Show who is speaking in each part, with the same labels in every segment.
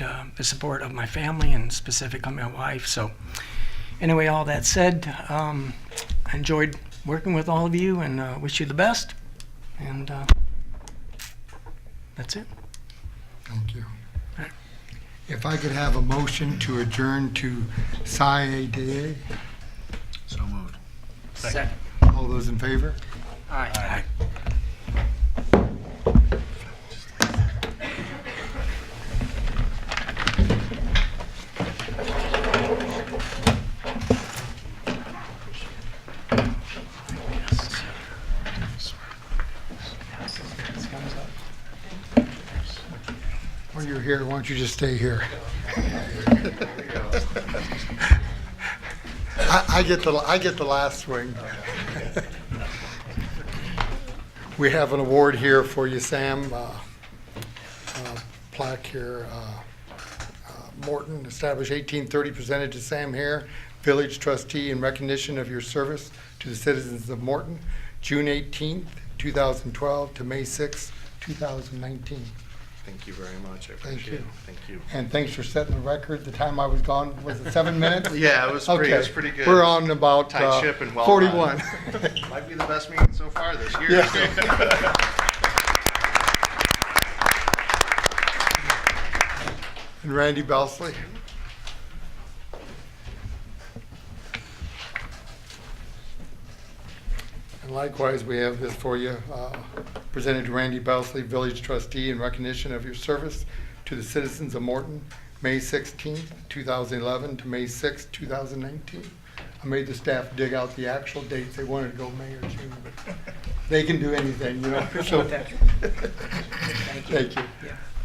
Speaker 1: uh, the support of my family and specifically my wife. So, anyway, all that said, um, I enjoyed working with all of you and uh, wish you the best. And uh, that's it.
Speaker 2: Thank you. If I could have a motion to adjourn to SIAA,
Speaker 3: So moved.
Speaker 1: Second.
Speaker 2: all those in favor?
Speaker 1: Aye.
Speaker 2: When you're here, why don't you just stay here? I, I get the, I get the last swing. We have an award here for you, Sam, uh, uh, plaque here. uh, uh, Morton, established 1830, presented to Sam Hare, village trustee in recognition of your service to the citizens of Morton, June 18th, 2012 to May 6th, 2019.
Speaker 3: Thank you very much. I
Speaker 2: Thank
Speaker 3: appreciate it.
Speaker 2: you.
Speaker 3: Thank you.
Speaker 2: And thanks for setting the record. The time I was gone, was it seven minutes?
Speaker 3: Yeah, it was pretty, it was pretty good.
Speaker 2: We're on about
Speaker 3: Tight
Speaker 2: uh,
Speaker 3: ship and well done.
Speaker 2: 41.
Speaker 3: Might be the best meeting so far this year.
Speaker 2: Yeah. And Randy Belsley. And likewise, we have this for you, uh, presented to Randy Belsley, Village Trustee, in recognition of your service to the citizens of Morton, May 16th, 2011 to May 6th, 2019. I made the staff dig out the actual dates. They wanted to go May or June, but they can do anything, you know? so- Thank you.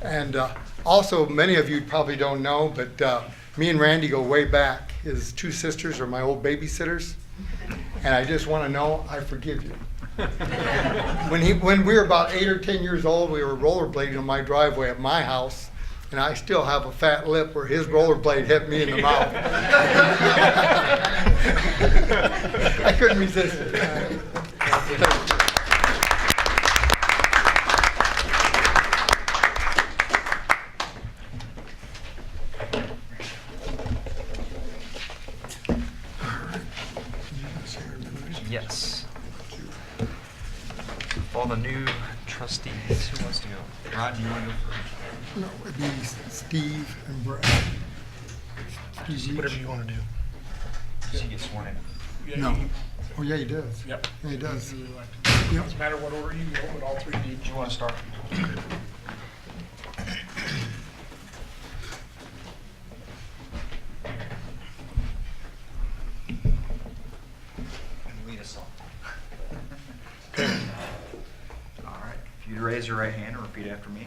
Speaker 2: And uh, also, many of you probably don't know, but uh, me and Randy go way back. His two sisters are my old babysitters, and I just want to know, I forgive you. When he, when we were about eight or 10 years old, we were rollerblading on my driveway at my house, and I still have a fat lip where his rollerblade hit me in the mouth. I couldn't resist it.
Speaker 4: Yes. All the new trustees, who wants to go? Rod, do you want to go
Speaker 2: No, it'd be Steve and Brad.
Speaker 5: Whatever you want to do.
Speaker 4: first? She gets sworn in.
Speaker 2: No. Oh, yeah, he does.
Speaker 5: Yep.
Speaker 2: Yeah, he does. Yep.
Speaker 5: Doesn't matter what order you go, but all three need
Speaker 4: Do you want to start? Lead us All right, if you'd raise your right hand and repeat after me.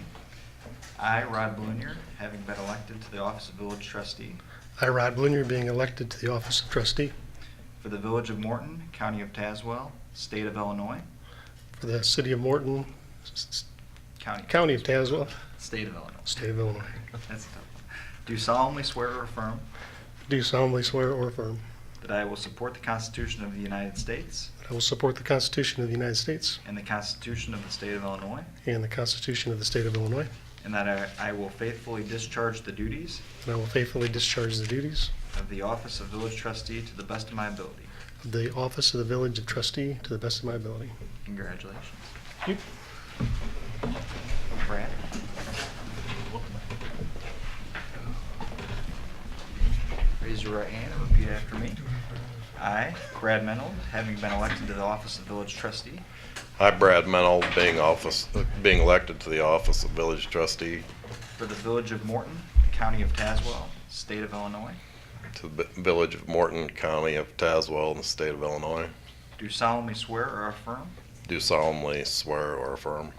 Speaker 4: I, Rod Blunier, having been elected to the office of village trustee
Speaker 5: I, Rod Blunier, being elected to the office of trustee
Speaker 4: for the village of Morton, county of Tazewell, state of Illinois,
Speaker 5: for the city of Morton, s- s-
Speaker 4: county,
Speaker 5: county of Tazewell,
Speaker 4: state of Illinois.
Speaker 5: state of Illinois.
Speaker 4: That's tough. Do solemnly swear or affirm
Speaker 5: Do solemnly swear or affirm
Speaker 4: that I will support the Constitution of the United States
Speaker 5: that I will support the Constitution of the United States
Speaker 4: and the Constitution of the State of Illinois,
Speaker 5: and the Constitution of the state of Illinois,
Speaker 4: and that I- I will faithfully discharge the duties
Speaker 5: and I will faithfully discharge the duties
Speaker 4: of the office of village trustee to the best of my ability.
Speaker 5: of the office of the village of trustee to the best of my ability.
Speaker 4: Congratulations.
Speaker 5: Yep.
Speaker 4: Brad? Raise your right hand and repeat after me. I, Brad Menold, having been elected to the office of village trustee
Speaker 6: Hi, Brad Mennel, being office, being elected to the office of village trustee
Speaker 4: for the village of Morton, county of Tazewell, state of Illinois,
Speaker 6: to the vi- village of Morton, county of Tazewell, in the state of Illinois,
Speaker 4: do solemnly swear or affirm
Speaker 6: do solemnly swear or affirm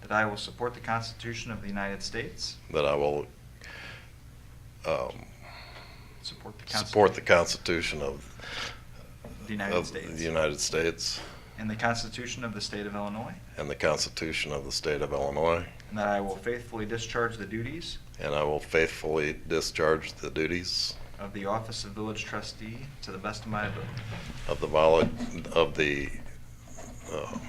Speaker 4: that I will support the Constitution of the United States,
Speaker 6: that I will um,
Speaker 4: support the
Speaker 6: support
Speaker 4: Constitution
Speaker 6: the Constitution of
Speaker 4: of the United
Speaker 6: of the
Speaker 4: States,
Speaker 6: United States
Speaker 4: and the Constitution of the state of Illinois,
Speaker 6: and the Constitution of the state of Illinois,
Speaker 4: and that I will faithfully discharge the duties
Speaker 6: and I will faithfully discharge the duties
Speaker 4: Of the office of village trustee to the best of my ability.
Speaker 6: of the vol of the, um,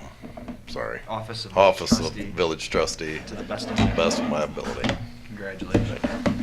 Speaker 6: sorry,
Speaker 4: Office of village
Speaker 6: office of
Speaker 4: trustee
Speaker 6: village trustee
Speaker 4: to the best of
Speaker 6: to
Speaker 4: my
Speaker 6: the best
Speaker 4: ability.
Speaker 6: of my ability.
Speaker 4: Congratulations.